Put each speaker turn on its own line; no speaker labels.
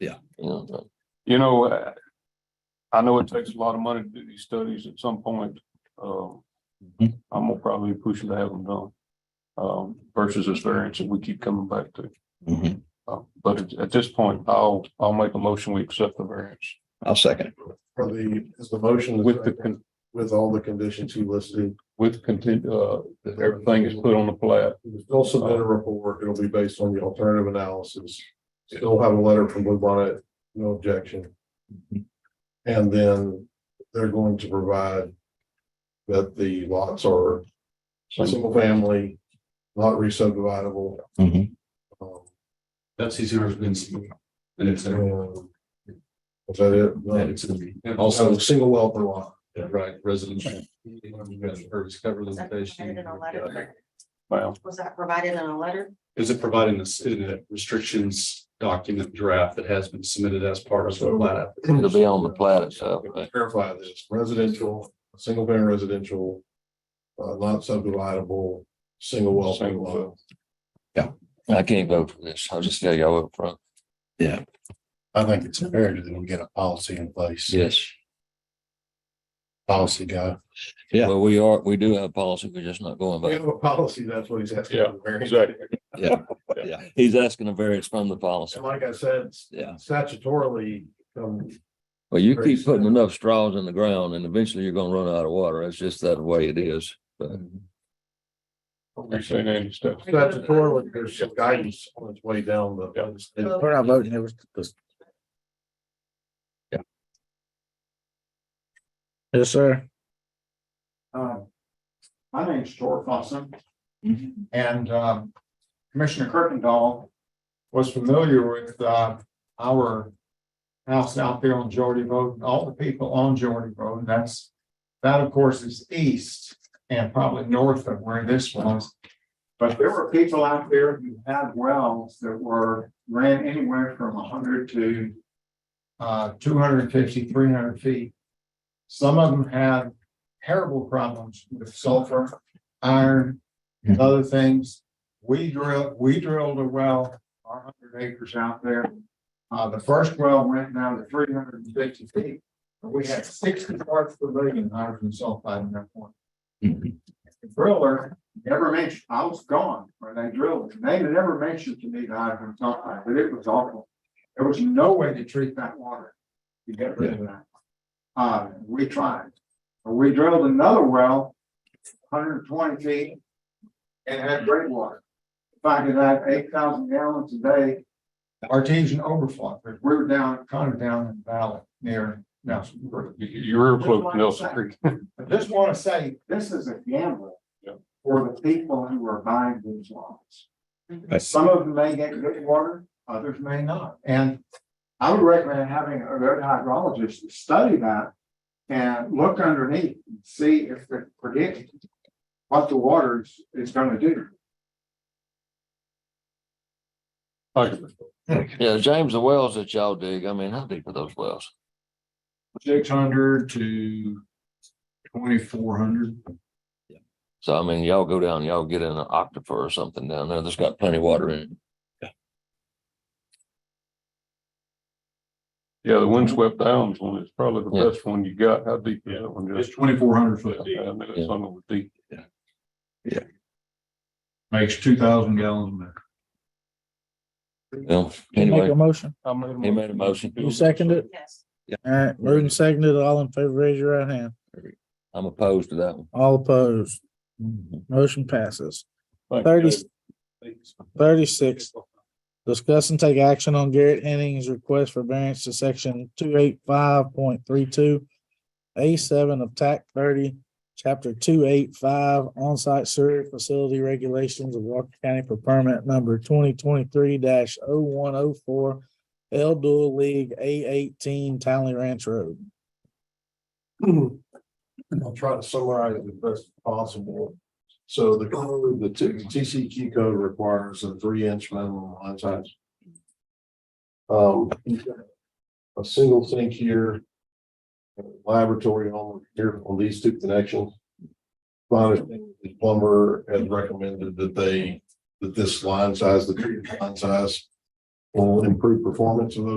Yeah.
You know, but-
You know, uh, I know it takes a lot of money to do these studies at some point. Um,
Mhm.
I'm gonna probably push to have them done. Um, versus this variance that we keep coming back to.
Mhm.
Uh, But at- at this point, I'll, I'll make a motion, we accept the variance.
I'll second it.
For the, is the motion
With the, con-
with all the conditions you listed.
with content, uh, that everything is put Uh, on the plat.
Still submit a report. It'll be based on the alternative analysis. Still have a letter from Blue Bonnet, no objection. And then they're going to provide that the lots are single family, not re-subdividable.
Mhm.
Mm-hmm.
um,
That's his argument. And it's, uh,
and- Is that it?
that it's gonna be- and
Also,
also,
single well per lot.
right, resolution. Or it's covered limitation.
Well,
Was that provided in a letter?
Is it providing this in a restrictions document draft that has been submitted as part of the plat? app?
It'll be on the plat itself, but
Clarify this, residential, single family residential. Uh, not subdividable, single well, single lot.
I can't vote for this. I'll just tell y'all up front.
I think it's imperative that we get a policy in place,
Yes.
policy guy.
Yeah.
Well, we are, we do have a policy. We're just not going by.
We
it.
have a policy, that's what he's asking.
Yeah, exactly.
He's asking a variance from the policy.
And like I said,
Yeah.
statutorily, um,
Well, you
Very
keep putting
sad.
enough straws in the ground and eventually you're gonna run out of water. It's just that way it is. But
we saying any stuff.
statutorily, there's some guidance on its way down the.
We're not voting,
it was just.
Yeah.
Yes, sir.
Um, my name's George Fossum. And, um, Commissioner Kirkendall was familiar with, uh, our house out there on Geordie Road, and all the people on Geordie Road, and that's, that of course is east and probably north of where this was. But there were people out there who had wells that were, ran anywhere from hundred to uh, 250, 300 feet. Some of them had terrible problems with sulfur, iron, and other things. We drilled, we drilled a well, our hundred acres out there. Uh, the first well went down to three hundred and fifty feet. but We had sixty parts per billion hydrogen sulfide in that one.
Mhm.
The driller never mentioned, I was gone when they drilled it. They never mentioned to me the hydrogen sulfide, but it was awful. There was no way to treat that water. You get rid of that. Uh, we tried. We drilled another well, hundred and twenty feet, and had great water. If I could have eight thousand gallons a day artesian overflow, because we were down, kind of down in the valley near Nelson Creek.
You- You're close to Nelson Creek.
I just want to say, this is a gamble
Yeah.
for the people who are buying these lots.
Right.
Some of them may get good water, others may not, and I would recommend having a good hydrologist to study that and look underneath and see if they predict what the water is, is gonna do.
Like,
yeah, James, the wells that y'all dig, I mean, how deep are those wells?
Six hundred to twenty-four hundred.
So I mean, y'all go down, y'all get in an aquifer or something down there that's got plenty of water in it.
Yeah, the windswept downs one is probably
Yeah.
the best one you got. How deep is that one?
It's
Just,
twenty-four hundred
I
foot deep,
knew that some of it was deep.
makes two thousand gallons a minute.
Well, anyway,
motion.
I made a
he made a motion.
You
second it?
Yes.
All right, moved and seconded, all in favor, raise your right hand.
I'm opposed to that one.
All opposed, motion passes. Thirty, thirty-six. Discuss and take action on Garrett Henning's request for variance to section two eight five point three two. A seven of TAC thirty, chapter two eight five, on-site sewer facility regulations of Walker County for permit number twenty twenty-three 104 L Dual League A eighteen Townley Ranch Road.
And I'll try to summarize it as best possible. So the code, the T- TCQ code requires a three inch minimum line size. Um, you've got a single sink here. Laboratory on here on these two connections. My understanding is plumber has recommended that they, that this line size, the three inch line size. Will improve performance of those